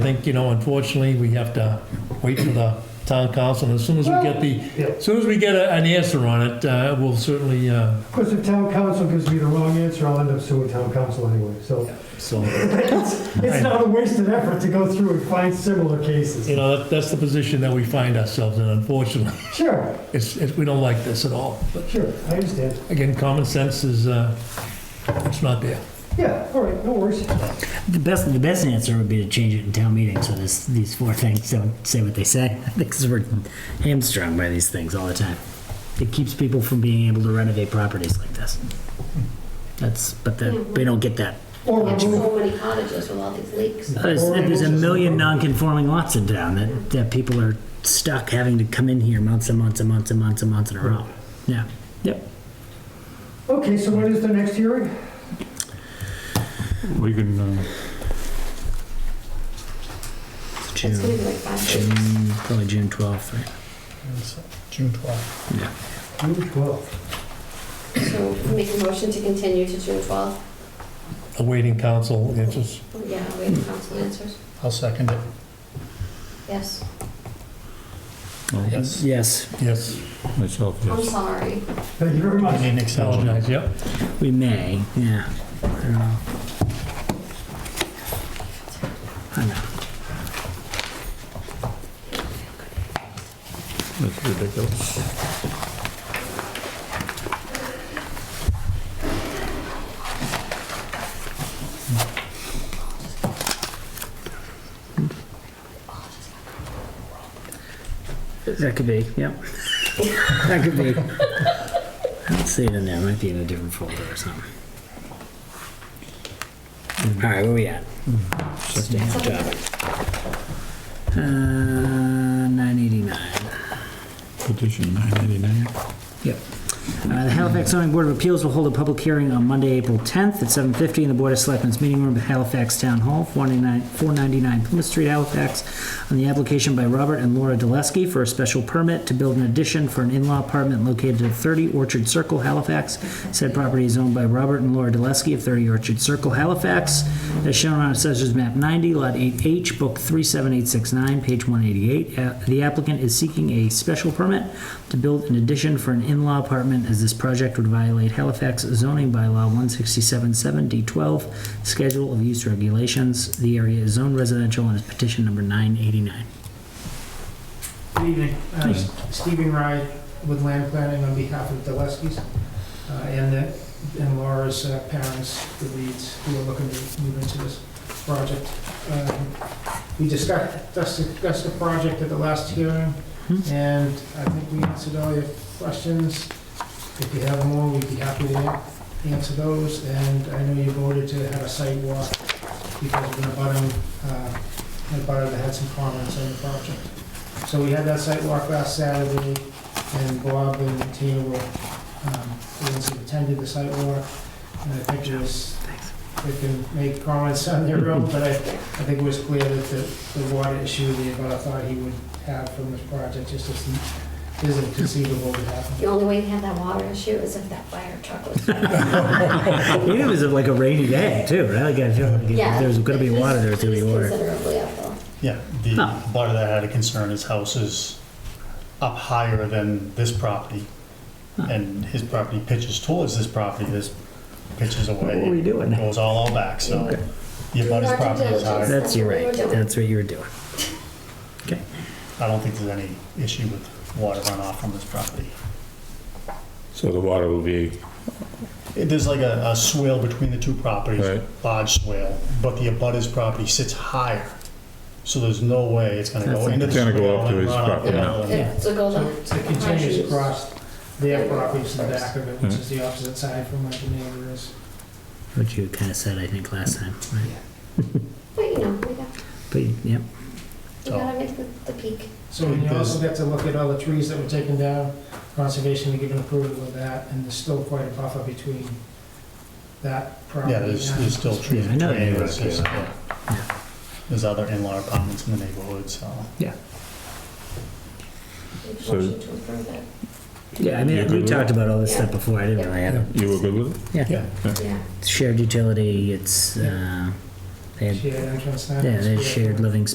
think, you know, unfortunately, we have to wait for the town council. And as soon as we get Yeah. the, as soon as we get a- an answer on it, uh, we'll certainly, uh, Of course, if town council gives me the wrong answer, I'll end up suing town council anyway, so so, it's, it's not a wasted effort to go through and find similar you cases. know, that- that's the position that we find ourselves in, unfortunately. Sure, It's, it's, we don't like this at all. But sure, I understand. again, common sense is, uh, it's not there. Yeah, all right, no worries. The best, the best answer would be to change it in town meeting, so this, these four things don't say what they say. I think 'cause we're hamstrung by these things all the time. It keeps people from being able to renovate properties like this. That's, but the, they don't get that. Or remove, So many cottages with all these leaks. There's, there's a million non-conforming lots in town that, that people are stuck having to come in here months and months and months and months and months in a row. Yeah, yep. okay, so when is the next hearing? We can, uh, It's gonna June, be like five days. June, probably June twelfth, right? June 12th. Yeah. June 12th. So make a motion to continue to June twelfth. oh, Awaiting council answers. Yeah, wait, for council answers. I'll second it. Yes. Yes. Yes, Yes, myself, I'm yes. sorry. Thank you very We much. need an extension. apologize, yep. we may, yeah. I don't know. I know. That's ridiculous. That could be, yep. That could be. I don't see it in there, it might be in a different folder or something. All right, where we at? Staying on topic. Uh, nine eighty-nine. Petition 989. Yep. Uh, The Halifax zoning board of appeals will hold a public hearing on Monday, April 10th at 7:50 in the Board of Selectmen's meeting room at Halifax Town Hall, 499 499 Plymouth Street, Halifax, on the application by Robert and Laura Dulesky for a special permit to build an addition for an in-law apartment located at 30 Orchard Circle, Halifax. Said property is owned by Robert and Laura Dulesky of 30 Orchard Circle, Halifax, as shown on Assessor's Map 90, Lot 8H, Book 37869, page 188. Uh, The applicant is seeking a special permit to build an addition for an in-law apartment as this project would violate Halifax zoning bylaw 167-7D12, Schedule of Use Regulations. The area is zoned residential and is petition number 989. Good evening. Uh, Stephen Rye with Land Planning on behalf of Deleskis uh, and the- and Laura's uh, parents, the Reeds, who are looking to move into this project. Um, We discussed discussed the project at the last hearing, Mhm. and I think we answered all your questions. If you have more, we'd be happy to an- answer those, and I know you voted to have a site walk because of the bottom, uh, the bottom that had some comments on the project. So we had that site walk last Saturday, and Bob and Tina were, um, the ones who attended the site walk. And I think it was, they can make comments on their own, but I, I think it was clear that the, the water issue the abutter thought he would have from this project just isn't, isn't conceivable to happen. The only way to have that water issue is if that fire truck was. Even if it's like a rainy day, too, right? Like, I feel like if Yeah. there's gonna be water, there's gonna be It's water. Considerably uphill. Yeah, the Huh. part of that had a concern, his house is up higher than this property, Huh. and his property pitches towards this property, this pitches away. What are we doing? It Goes all out back, so Okay. the abutter's Market property is higher. diligence. That's, you're right, that's what you were doing. Okay. I don't think there's any issue with water runoff from this property. So the water will be, It- There's like a a swale between the two properties, Right. large swale, but the abutters property sits higher, so there's no way it's gonna That's go not- into the It's gonna swale. go up to and his run up property, and yeah. down. It- So it goes So on. It continues across their property to the back of it, which is Mm-hmm. the opposite side from where the neighbor is. What you kind of said, I think, last time, right? But you know, we got, But, yep. we gotta make the, the peak. So you also get to look at all the trees that were taken down, conservation, we give an approval of that, and there's still quite a buffer between that property. Yeah, there's, and- there's still trees. Yeah, I know between they do us, that, there's- yeah. yeah. Yeah. There's other in-law apartments in the neighborhood, so. So- Motion to approve it. Yeah, I mean, You we agree talked about all this stuff Yeah. before, I didn't really have, you were good with yeah. Yeah. Shared utility, it's, uh, they had, Shared entrance now. yeah, they had shared living